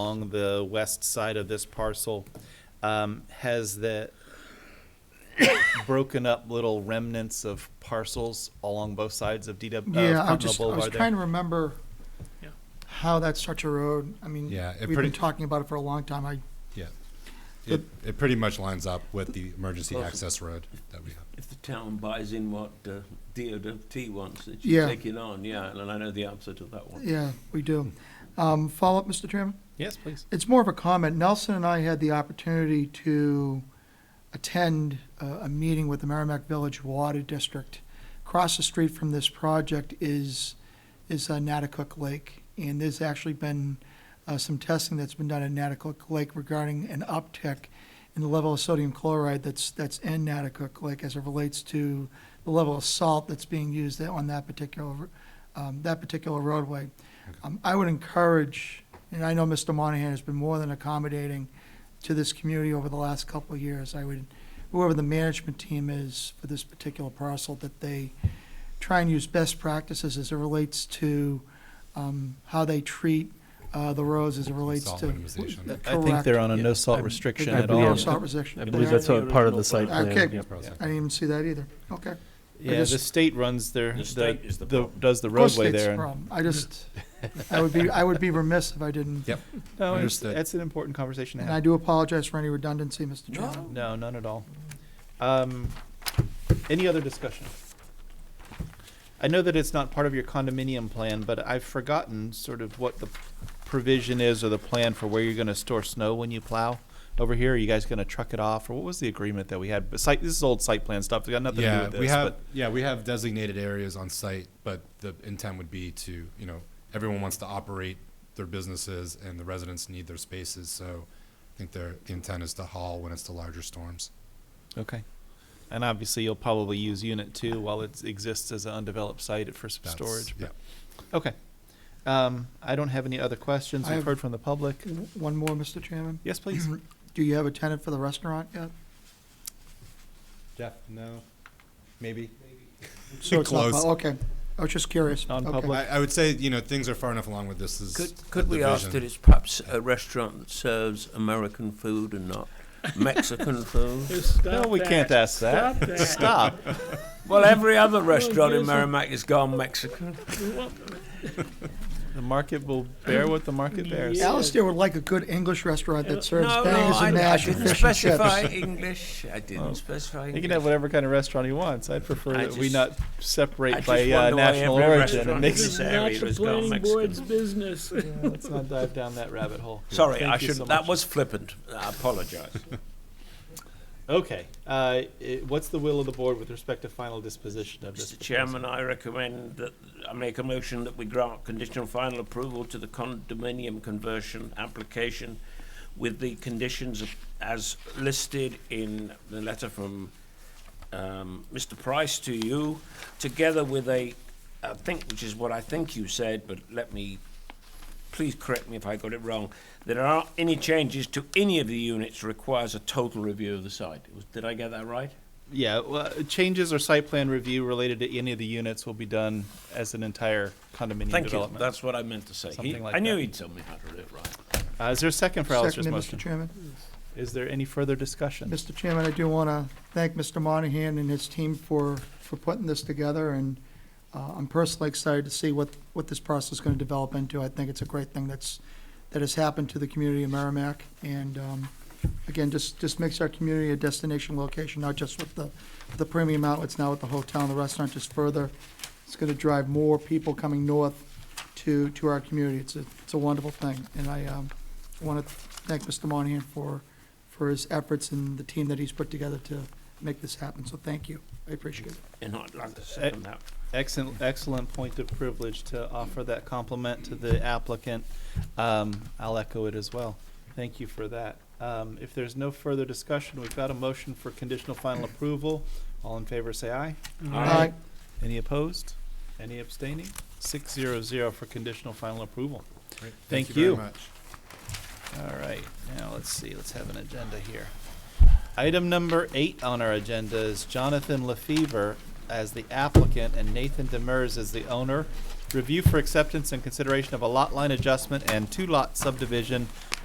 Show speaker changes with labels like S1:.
S1: along the west side of this parcel um, has the broken up little remnants of parcels along both sides of DW, of
S2: Yeah, I
S1: Continental
S2: just, I was
S1: Boulevard there.
S2: trying to remember
S3: Yeah.
S2: how that's such a road. I mean,
S4: Yeah, it
S2: we've
S4: pretty-
S2: been talking about it for a long time. I,
S4: Yeah. It, it pretty much lines up with the emergency access road that we have.
S3: If the town buys in what uh, DOT wants, it
S2: Yeah.
S3: should take it on, yeah, and I know the answer to that one.
S2: yeah, we do.
S1: Hmm.
S2: Um, follow up, Mr. Chairman?
S1: Yes, please.
S2: It's more of a comment. Nelson and I had the opportunity to attend uh, a meeting with the Merrimack Village Water District. Across the street from this project is, is uh, Natticook Lake. And there's actually been uh, some testing that's been done at Natticook Lake regarding an uptick in the level of sodium chloride that's, that's in Natticook Lake as it relates to the level of salt that's being used on that particular, um, that particular roadway. Um, I would encourage, and I know Mr. Monahan has been more than accommodating to this community over the last couple of years. I would, whoever the management team is for this particular parcel, that they try and use best practices as it relates to um, how they treat uh, the roads as it relates
S4: Salt
S2: to.
S4: minimization.
S2: Correct.
S1: I think they're on a no
S2: I-
S1: salt restriction
S2: I
S1: at
S2: believe
S1: all.
S2: it's not restriction.
S5: I believe
S3: They're
S5: that's a
S3: the
S5: part of
S3: original
S5: the site
S2: plan.
S5: plan.
S2: Okay.
S5: yep.
S4: Process.
S2: I didn't even see that either. Okay.
S1: Yeah, the
S2: just-
S1: state runs their,
S6: The
S1: the,
S6: state is the
S1: the-
S6: problem.
S1: does the
S2: Of course
S1: roadway
S2: state's
S1: there. and-
S2: problem. I just, I would be, I would be remiss if I didn't.
S4: Yep.
S1: No, it's-
S4: Understood.
S1: that's an important conversation to
S2: And
S1: have.
S2: I do apologize for any redundancy, Mr. Chairman.
S1: No, none at all. Um, any other discussion? I know that it's not part of your condominium plan, but I've forgotten sort of what the provision is or the plan for where you're gonna store snow when you plow over here. Are you guys gonna truck it off, or what was the agreement that we had? But site, this is old site plan stuff, it's got nothing to do
S4: Yeah,
S1: with
S4: we
S1: this,
S4: have,
S1: but
S4: yeah, we have designated areas on site, but the intent would be to, you know, everyone wants to operate their businesses and the residents need their spaces, so I think their, the intent is to haul when it's the larger storms.
S1: Okay. And obviously, you'll probably use unit two while it exists as an undeveloped site for some
S4: That's-
S1: storage.
S4: Yeah.
S1: Okay. Um, I don't have any other questions.
S2: I
S1: We've
S2: have-
S1: heard from the public.
S2: One more, Mr. Chairman.
S1: Yes, please.
S2: Do you have a tenant for the restaurant yet?
S4: Jeff, no, maybe?
S2: So it's not-
S4: Close.
S2: Okay, I was just curious. Okay.
S1: Non-public.
S4: I, I would say, you know, things are far enough along with this is.
S3: Could,
S4: a
S3: could we ask
S4: division.
S3: that it's perhaps a restaurant that serves American food and not Mexican food?
S1: No, we can't ask that.
S6: Stop that.
S1: Stop.
S3: Well, every other restaurant in
S6: yes,
S3: Merrimack is gone Mexican.
S1: The market will bear what the market bears.
S6: Yeah.
S2: Alistair would like a good English restaurant that
S3: No,
S2: serves
S3: Uh, no,
S2: bangers
S3: I
S2: and
S3: I
S2: mash and
S3: didn't
S2: fish and
S3: specify
S2: chips.
S3: English, I
S1: Oh.
S3: didn't specify
S1: He
S3: English.
S1: can have whatever kind of restaurant he wants. I prefer
S3: I
S1: that we
S3: just-
S1: not
S3: I
S1: separate
S3: just
S1: by uh,
S3: wonder why
S1: national
S3: every
S1: origin. It
S3: restaurant
S1: makes
S3: is-
S1: us,
S6: This is
S3: area
S6: not the
S3: was gone
S6: planning board's
S3: Mexican.
S6: business.
S1: let's not dive down that rabbit hole.
S3: Sorry,
S1: Thank
S3: I
S1: you so
S3: shouldn't, that
S1: much.
S3: was flippant, I apologise.
S1: Okay. Uh, i- what's the will of the board with respect to final disposition of this?
S3: Mr. Chairman, I recommend that, I make a motion that we grant conditional final approval to the condominium conversion application with the conditions of- as listed in the letter from um, Mr. Price to you, together with a, I think, which is what I think you said, but let me, please correct me if I got it wrong, that there aren't any changes to any of the units requires a total review of the site. Was- Did I get that right?
S1: Yeah. Well, changes or site plan review related to any of the units will be done as an entire condominium
S3: Thank you.
S1: development.
S3: That's what I meant to say. He-
S1: Something like
S3: I knew
S1: that.
S3: he'd tell me how to do it right.
S1: Uh, is there a second for Alistair's
S2: Seconded, Mr.
S1: motion?
S2: Chairman.
S1: Is there any further discussion?
S2: Mr. Chairman, I do want to thank Mr. Monahan and his team for, for putting this together, and uh, I'm personally excited to see what, what this process is going to develop into. I think it's a great thing that's, that has happened to the community of Merrimack, and um, again, just, just makes our community a destination location, not just with the, the premium outlets, now with the hotel and the restaurant, just further. It's going to drive more people coming north to, to our community. It's a, it's a wonderful thing, and I want to thank Mr. Monahan for, for his efforts and the team that he's put together to make this happen, so thank you. I appreciate it.
S3: And I'd like to second that.
S1: Excellent, excellent point of privilege to offer that compliment to the applicant. Um, I'll echo it as well. Thank you for that. Um, if there's no further discussion, we've got a motion for conditional final approval. All in favor, say aye.
S3: uh,
S2: Aye.
S1: Any opposed? Any abstaining? Six zero zero for conditional final approval.
S4: Great.
S1: Thank
S4: very
S1: you.
S4: much.
S1: All right, now let's see, let's have an agenda here. Item number eight on our agenda is Jonathan LaFever as the applicant and Nathan Demers as the owner Review for acceptance and consideration of a lot line adjustment and two lot subdivision